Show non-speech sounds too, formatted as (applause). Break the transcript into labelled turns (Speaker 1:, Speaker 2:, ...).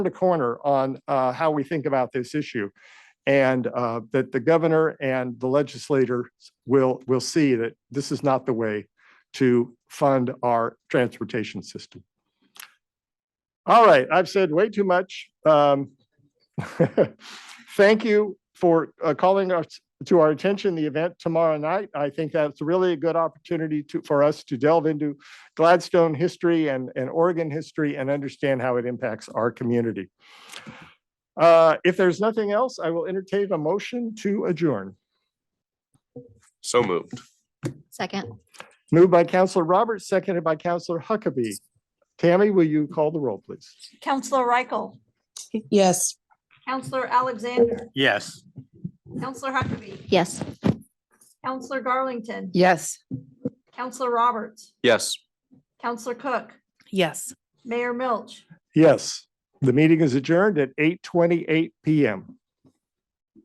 Speaker 1: the corner on uh, how we think about this issue. And uh, that the governor and the legislators will, will see that this is not the way to fund our transportation system. All right, I've said way too much. Um, (laughs) Thank you for uh, calling us to our attention the event tomorrow night. I think that's really a good opportunity to, for us to delve into Gladstone history and, and Oregon history and understand how it impacts our community. Uh, If there's nothing else, I will entertain a motion to adjourn.
Speaker 2: So moved.
Speaker 3: Second,
Speaker 1: Moved by Counselor Roberts, seconded by Counselor Huckabee. Tammy, will you call the roll, please?
Speaker 4: Counselor Reichel,
Speaker 5: Yes.
Speaker 4: Counselor Alexander,
Speaker 6: Yes.
Speaker 4: Counselor Huckabee,
Speaker 3: yes.
Speaker 4: Counselor Garlington,
Speaker 5: Yes.
Speaker 4: Counselor Roberts,
Speaker 2: Yes.
Speaker 4: Counselor Cook,
Speaker 5: Yes.
Speaker 4: Mayor Milch.
Speaker 1: Yes, the meeting is adjourned at eight twenty-eight PM.